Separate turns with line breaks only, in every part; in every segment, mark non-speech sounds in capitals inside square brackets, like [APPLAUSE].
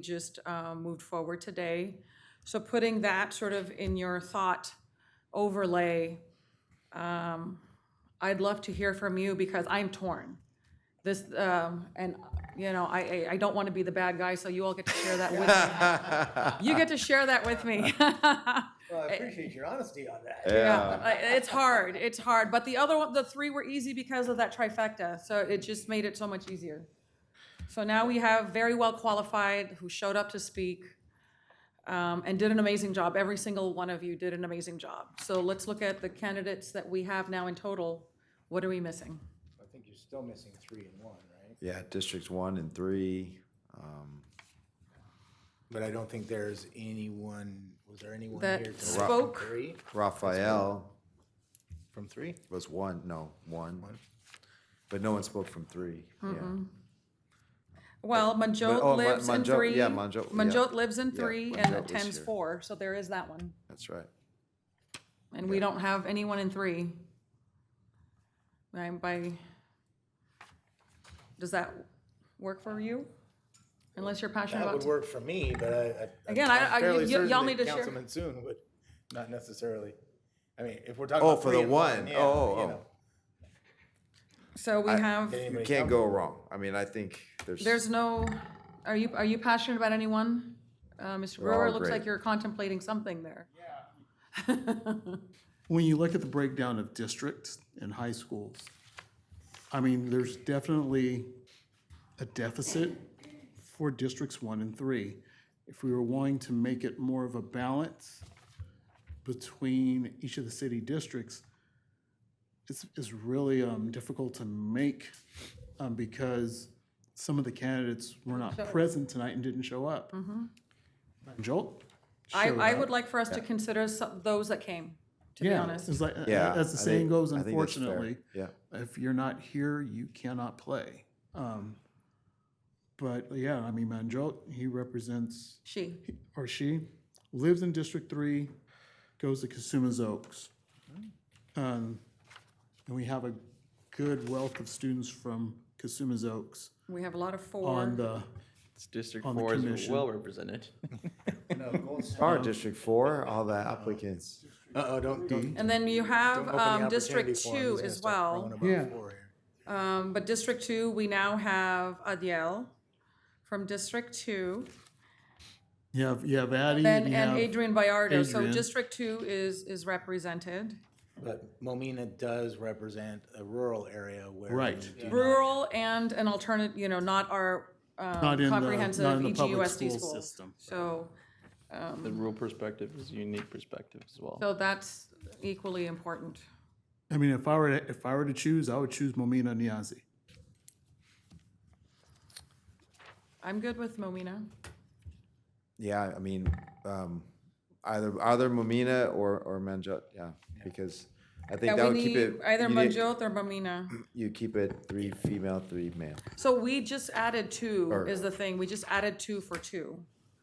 just uh, moved forward today. So putting that sort of in your thought overlay, um, I'd love to hear from you because I'm torn. This, um, and, you know, I, I- I don't want to be the bad guy, so you all get to share that with me. You get to share that with me.
Well,
Eh,
I appreciate your honesty on that.
Eh.
Yeah, I- it's hard, it's hard. But the other one, the three were easy because of that trifecta, so it just made it so much easier. So now we have very well qualified who showed up to speak um, and did an amazing job. Every single one of you did an amazing job. So let's look at the candidates that we have now in total. What are we missing?
I think you're still missing three and one, right?
Yeah, districts one and three.
But I don't think there's anyone, was there anyone
That
here? to-
spoke.
From three?
Raphael
From three?
was one, no, one. But no one spoke from three. Yeah.
Well,
But- oh,
Manjot
Ma-
lives in
Manjot,
three.
yeah, Manjot, yeah.
Manjot lives in
Yeah,
three
Manjot
and
was
attends
here.
four, so there is that one.
That's right.
And we don't have anyone in three. Right, by, does that work for you? Unless you're passionate
That would
about.
work for me, but I. I-
Again, I-
I'm
I- y-
fairly
y-
certain
y'all
that
need to share.
Councilman Soon would, not necessarily. I mean, if we're talking
Oh,
about
for the
three and
one.
yeah,
Oh,
you
oh,
know,
So we have,
did
You
anybody
can't
come?
go wrong. I mean, I think there's,
there's no, are you, are you passionate about anyone? Uh, Mr. Brewer,
all
looks like
great.
you're contemplating something there.
when you look at the breakdown of districts and high schools, I mean, there's definitely a deficit for districts one and three. If we were wanting to make it more of a balance between each of the city districts, it's, it's really, um, difficult to make, um, because some of the candidates were not present tonight and didn't show up. Jolt?
Mm-hmm. I,
showed
I
up.
would like for us to consider some, those that came, to be
Yeah,
honest.
It's like, uh,
Yeah,
as the
I
saying
think-
goes,
I think that's fair.
unfortunately,
Yeah.
if you're not here, you cannot play. Um, but yeah, I mean, Manjot, he represents,
She,
or she, lives in District Three, goes to Casuma's Oaks. Um, and we have a good wealth of students from Casuma's Oaks
we have a lot of four.
on the,
It's District
on the
Four is
commission.
well represented.
oh,
No, Gold Star-
our district four, all the applicants.
[LAUGHS] Uh-oh, don't, don't.
And then you have,
open the
um, District
opportunity for him.
Two
He's gonna
as
start
well.
throwing about
Yeah.
four here.
Um, but District Two, we now have Adiel from District Two,
you have, you have Addie, and
and,
you
and
have,
Adrian Bayardo, so
Adrian.
District Two is, is represented.
But Momina does represent a rural area where.
Right.
we do not-
Rural and an alternate, you know, not our, um,
Not in the- not in the
comprehensive E
public
EGUSD
school
schools.
system.
So,
The rural perspective is a unique perspective as well.
so that's equally important.
I mean, if I were, to- if I were to choose, I would choose Momina Niazi.
I'm good with Momina.
Yeah, I mean, um, either, either Momina or, or Manjot, yeah, because I think
Yeah,
that
we
would
need
keep it.
either
you need-
Manjot or Momina.
You keep it three female, three male.
So we just added two is the thing, we just added two for two.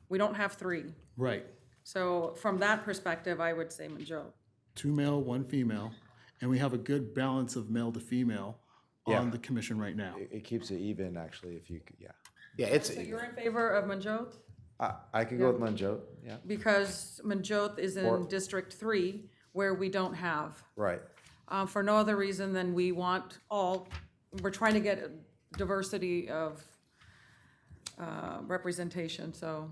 We don't have three.
Right.
So from that perspective, I would say Manjot.
two male, one female, and we have a good balance of male to female on the commission right now.
It, it keeps it even, actually, if you, c- yeah.
Yeah, it's,
You're in favor of Manjot?
I, I could go with Manjot, yeah,
Because Manjot is in District Three, where we don't have,
right.
uh, for no other reason than we want all, we're trying to get diversity of, uh, representation, so.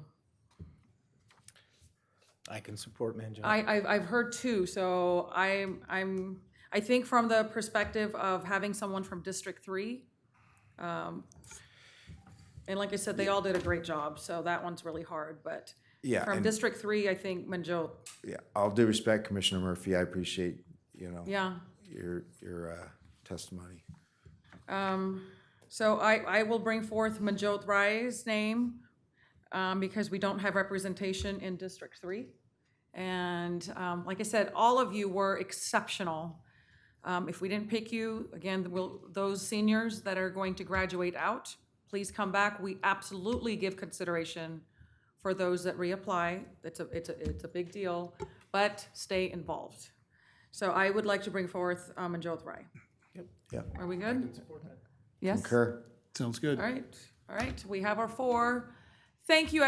I can support Manjot.
I, I've, I've heard two, so I'm, I'm, I think from the perspective of having someone from District Three, um, and like I said, they all did a great job, so that one's really hard, but
Yeah,
from
and-
District Three, I think Manjot,
Yeah, all due respect, Commissioner Murphy, I appreciate, you know,
yeah.
your, your uh, testimony.
So I, I will bring forth Manjot Rai's name, um, because we don't have representation in District Three. And, um, like I said, all of you were exceptional. Um, if we didn't pick you, again, will, those seniors that are going to graduate out, please come back. We absolutely give consideration for those that reapply. It's a, it's a, it's a big deal, but stay involved. So I would like to bring forth, um, Manjot Rai.
Yep.
Are we good? Yes?
Kerr?
Sounds good.
All right, all right, we have our four. Thank you,